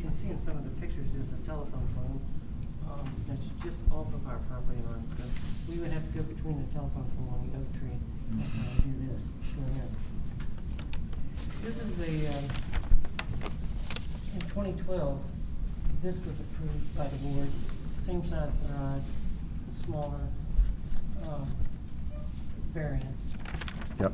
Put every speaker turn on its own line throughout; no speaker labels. can see in some of the pictures, there's a telephone pole, um, that's just off of our property line, so we would have to go between the telephone pole and the oak tree, and uh, do this, go there. This is the, uh, in twenty twelve, this was approved by the board, same size garage, smaller, um, variance.
Yep.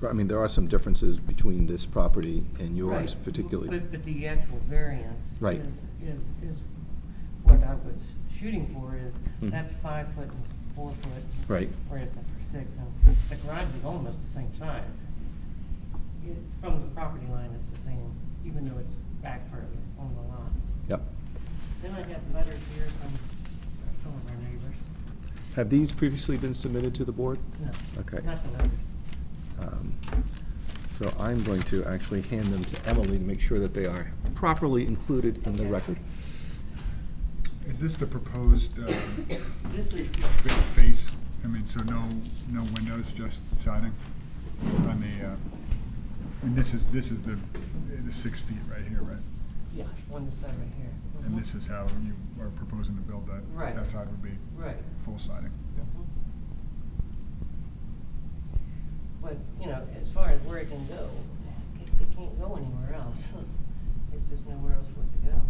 Right, I mean, there are some differences between this property and yours
Right.
particularly.
But, but the actual variance
Right.
is, is, is what I was shooting for is,
Mm.
that's five foot and four foot.
Right.
Whereas the for six, and the garage is almost the same size. It, from the property line, it's the same, even though it's back further on the lot.
Yep.
Then I have letters here from some of our neighbors.
Have these previously been submitted to the board?
No.
Okay.
Not the letters.
Um, So I'm going to actually hand them to Emily to make sure that they are properly included in the
Okay.
record.
Is this the proposed uh,
This is,
fa- face, I mean, so no, no windows, just siding on the, uh, and this is, this is the, the six feet right here, right?
yeah, on the side right here.
And
Mhm.
this is how you are proposing to build that?
Right.
That side would be
Right.
full siding?
But, you know, as far as where it can go, it, it can't go anywhere else. It's just nowhere else for it to go.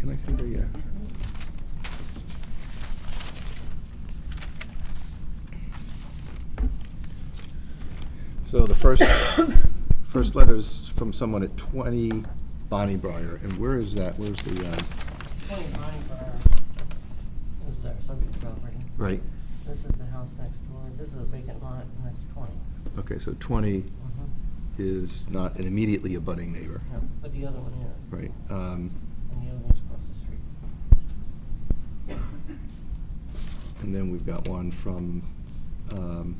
Can I see the, uh, so the first, first letter is from someone at 20 Bonnie Briar, and where is that? Where's the, um,
Twenty Bonnie Briar this is our subject property.
right,
This is the house next door. This is a vacant lot, and that's twenty.
okay, so 20
Mhm.
is not an immediately abutting neighbor,
No, But the other one is.
right? Um,
And the other one's across the street.
And then we've got one from um,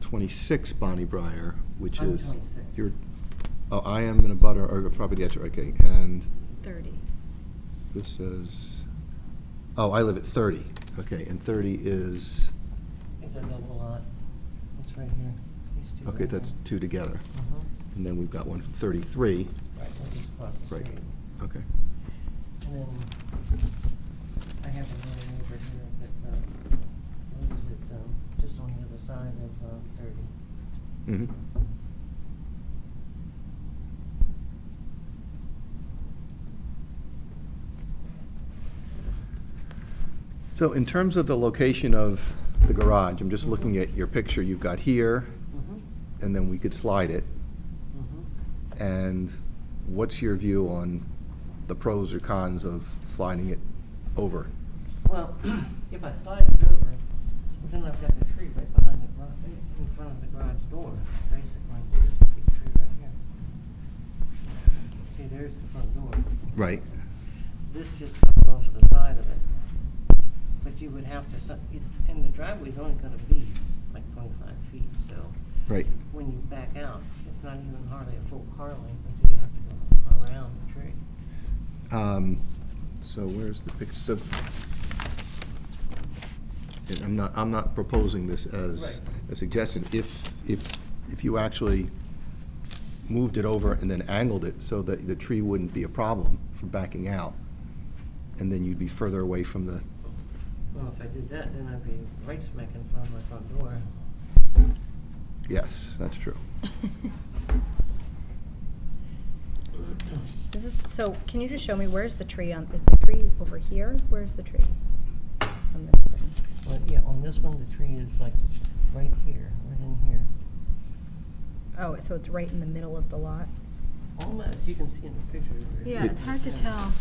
26 Bonnie Briar, which
I'm
is.
26.
You're, oh, I am in a butter, or probably the, okay, and
30.
this says, oh, I live at 30, okay, and 30 is,
It's a double lot. It's right here. These two.
okay, that's two together.
Mm-hmm.
And then we've got one from 33,
Right, which is across the
Right.
street.
okay.
And then Um, I have another neighbor here that, uh, lives at, um, just on the other side of, uh, thirty.
Mhm. So in terms of the location of the garage, I'm just looking at your picture you've got here,
Mm-hmm.
and then we could slide it.
Mm-hmm.
And what's your view on the pros or cons of sliding it over?
Well, if I slide it over, then I've got the tree right behind the garage, in front of the garage door, basically, this big tree right here. See, there's the front door.
Right.
This just comes off to the side of it. But you would have to, so- it- and the driveway's only gonna be like twenty-five feet, so.
Right.
When you back out, it's not even hardly a full car length until you have to go around the tree.
Um, So where's the picture? So, and I'm not, I'm not proposing this as
Right.
a suggestion. If, if, if you actually moved it over and then angled it so that the tree wouldn't be a problem for backing out, and then you'd be further away from the,
Well, if I did that, then I'd be right smack in front of my front door.
yes, that's true.
Is this, so can you just show me, where's the tree on, is the tree over here? Where's the tree? on this thing?
But yeah, on this one, the tree is like right here, right in here.
Oh, so it's right in the middle of the lot?
Almost, you can see in the picture.
Yeah,
It-
it's hard to tell.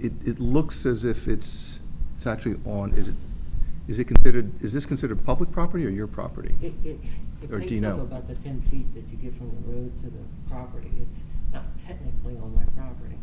It, it looks as if it's, it's actually on, is it, is it considered, is this considered public property or your property?
It, it,
Or
it
do you
takes up
know?
about the ten feet that you get from the road to the property. It's not technically on my property.